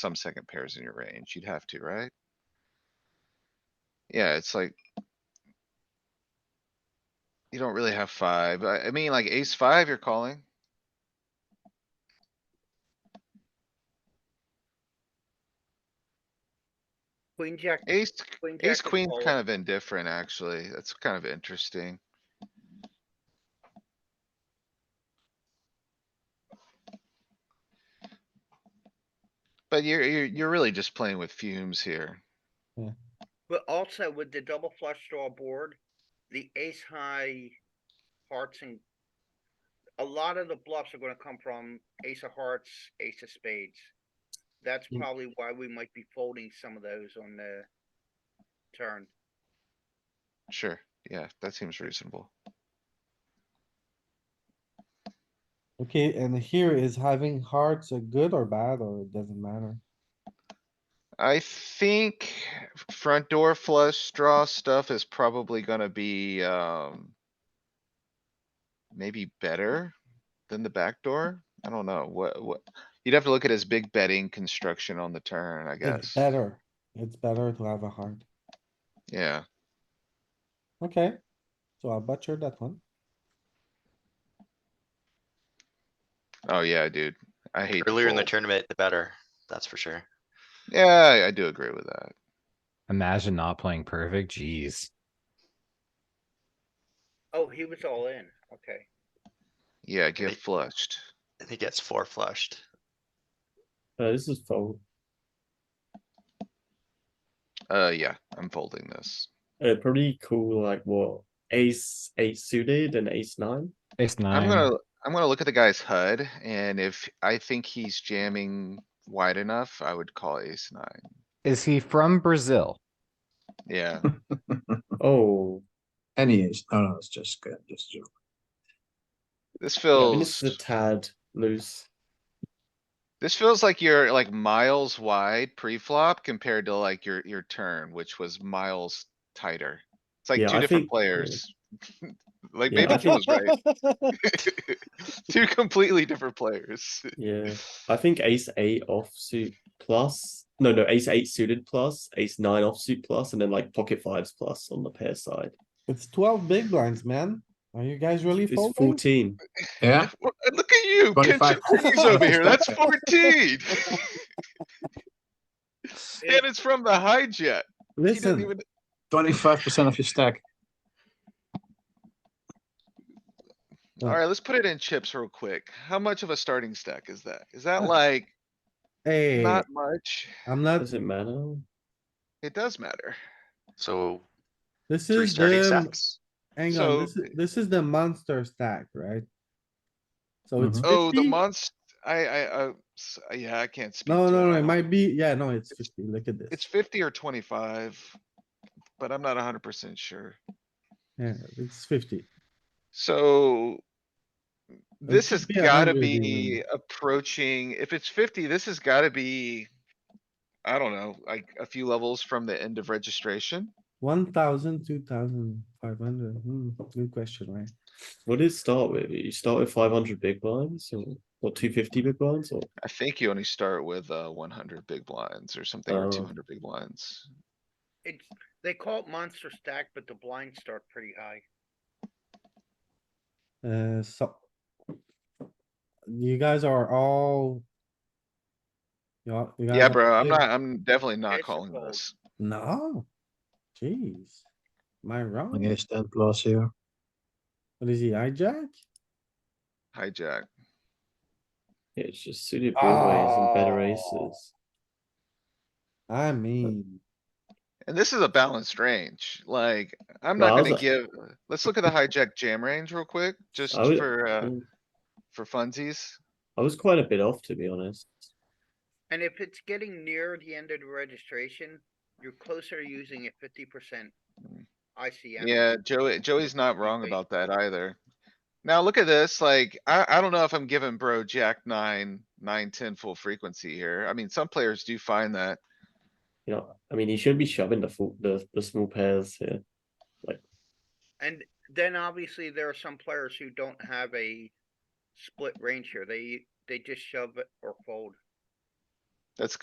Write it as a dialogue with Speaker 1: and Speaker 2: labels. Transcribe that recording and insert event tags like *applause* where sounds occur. Speaker 1: some second pairs in your range. You'd have to, right? Yeah, it's like. You don't really have five. I, I mean, like ace five, you're calling.
Speaker 2: Queen jack.
Speaker 1: Ace,
Speaker 2: jack
Speaker 1: ace
Speaker 2: is
Speaker 1: queen's
Speaker 2: all-
Speaker 1: kind of indifferent, actually. That's kind of interesting. But you're, you're, you're really just playing with fumes here.
Speaker 2: But also with the double flush draw board, the ace high hearts and. A lot of the bluffs are gonna come from ace of hearts, ace of spades. That's
Speaker 3: Mm.
Speaker 2: probably why we might be folding some of those on the turn.
Speaker 1: Sure, yeah, that seems reasonable.
Speaker 3: Okay, and here is having hearts a good or bad, or it doesn't matter?
Speaker 1: I think front door flush draw stuff is probably gonna be, um. Maybe better than the back door. I don't know. What, what? You'd have to look at his big betting construction on the turn, I
Speaker 3: It's
Speaker 1: guess.
Speaker 3: better. It's better to have a heart.
Speaker 1: Yeah,
Speaker 3: Okay, so I butchered that one.
Speaker 1: oh yeah, dude. I hate. to
Speaker 4: Earlier in the
Speaker 1: fold.
Speaker 4: tournament, the better, that's for sure.
Speaker 1: Yeah, I- I do agree with that.
Speaker 5: Imagine not playing perfect, jeez.
Speaker 2: Oh, he was all in, okay.
Speaker 1: Yeah, get
Speaker 4: Right.
Speaker 1: flushed.
Speaker 4: I think it's four flushed.
Speaker 6: Uh, this is fold.
Speaker 1: Uh, yeah, I'm folding this.
Speaker 6: Uh, pretty cool, like what? Ace eight suited and ace nine.
Speaker 5: Ace
Speaker 1: I'm
Speaker 5: nine,
Speaker 1: gonna, I'm gonna look at the guy's HUD and if I think he's jamming wide enough, I would call ace nine.
Speaker 5: is he from Brazil?
Speaker 1: Yeah.
Speaker 6: *laughs* Oh,
Speaker 7: Any is, no, no, it's just good, just joke.
Speaker 1: This
Speaker 6: yeah,
Speaker 1: feels,
Speaker 6: this is a tad loose.
Speaker 1: this feels like you're like miles wide pre-flop compared to like your, your turn, which was miles tighter. It's like
Speaker 6: Yeah,
Speaker 1: two
Speaker 6: I
Speaker 1: different
Speaker 6: think-
Speaker 1: players. *laughs* Like
Speaker 6: Yeah, I
Speaker 1: maybe
Speaker 6: *laughs*
Speaker 1: he was right. *laughs* Two completely different players. *laughs*
Speaker 6: Yeah, I think ace eight offsuit plus. No, no, ace eight suited plus, ace nine offsuit plus, and then like pocket fives plus on the pair side.
Speaker 3: *laughs* It's twelve big blinds, man. Are you guys really
Speaker 6: It's
Speaker 3: folding?
Speaker 6: fourteen.
Speaker 7: Yeah,
Speaker 1: Look at you, catching
Speaker 7: 25.
Speaker 1: threes over here.
Speaker 6: *laughs*
Speaker 1: That's fourteen. *laughs* And it's from the hijack. He didn't
Speaker 3: Listen,
Speaker 1: even,
Speaker 7: twenty-five percent of your stack.
Speaker 6: uh
Speaker 1: alright, let's put it in chips real quick. How much of a starting stack is that? Is
Speaker 6: Uh,
Speaker 1: that like
Speaker 6: eh.
Speaker 3: hey,
Speaker 1: not much?
Speaker 3: I'm not,
Speaker 6: Does it matter?
Speaker 1: It does matter.
Speaker 4: So
Speaker 3: this
Speaker 4: three
Speaker 3: is um,
Speaker 4: starting
Speaker 3: the,
Speaker 4: stacks.
Speaker 3: hang
Speaker 1: So-
Speaker 3: on, this is, this is the monster stack, right? So it's
Speaker 1: Oh, the
Speaker 3: fifty?
Speaker 1: monster, I, I, I, s- uh, yeah, I can't speak.
Speaker 3: No,
Speaker 1: to
Speaker 3: no, no,
Speaker 1: I
Speaker 3: it
Speaker 1: don't-
Speaker 3: might be, yeah, no, it's fifty, look at
Speaker 1: It's
Speaker 3: this.
Speaker 1: fifty or twenty-five, but I'm not hundred percent sure.
Speaker 3: Yeah, it's fifty.
Speaker 1: So this has
Speaker 3: should be a
Speaker 1: gotta
Speaker 3: hundred
Speaker 1: be
Speaker 3: even.
Speaker 1: approaching, if it's fifty, this has gotta be, I don't know, like a few levels from the end of registration.
Speaker 3: One thousand, two thousand, five hundred, hmm, good question, right?
Speaker 6: What did it start with? You start with five hundred big blinds, or what? Two fifty big blinds, or
Speaker 1: I think you only start with, uh, one hundred big blinds or something, or
Speaker 6: Oh.
Speaker 1: two hundred big blinds.
Speaker 2: It's, they call it monster stack, but the blinds start pretty high.
Speaker 3: Uh, so. You guys are all. You all- you guys
Speaker 1: Yeah,
Speaker 3: are
Speaker 1: bro, I'm
Speaker 3: big.
Speaker 1: not, I'm definitely not
Speaker 2: It's a
Speaker 1: calling
Speaker 2: fold.
Speaker 1: this.
Speaker 3: No, jeez. Am I wrong?
Speaker 7: Only ace ten plus here.
Speaker 3: What is he, hijack?
Speaker 1: Hijack.
Speaker 6: yeah, it's just suited broadways and better
Speaker 3: Ah.
Speaker 6: aces.
Speaker 3: I mean,
Speaker 1: And this is a balanced range, like, I'm
Speaker 6: Well,
Speaker 1: not
Speaker 6: I was
Speaker 1: gonna
Speaker 6: a-
Speaker 1: give, let's look at the hijack jam range real quick, just
Speaker 6: I was-
Speaker 1: for, uh,
Speaker 6: Mm.
Speaker 1: for funsies.
Speaker 6: I was quite a bit off, to be honest.
Speaker 2: And if it's getting near the end of the registration, you're closer to using a fifty percent
Speaker 1: Mm.
Speaker 2: ICM.
Speaker 1: Yeah, Joey, Joey's not wrong
Speaker 2: Wait.
Speaker 1: about that either. Now, look at this, like, I, I don't know if I'm giving bro jack nine, nine, ten full frequency here. I mean, some players do find that.
Speaker 6: You know, I mean, he should be shoving the full, the the small pairs here.
Speaker 2: And then obviously there are some players who don't have a split range here. They, they just shove it or fold.
Speaker 1: That's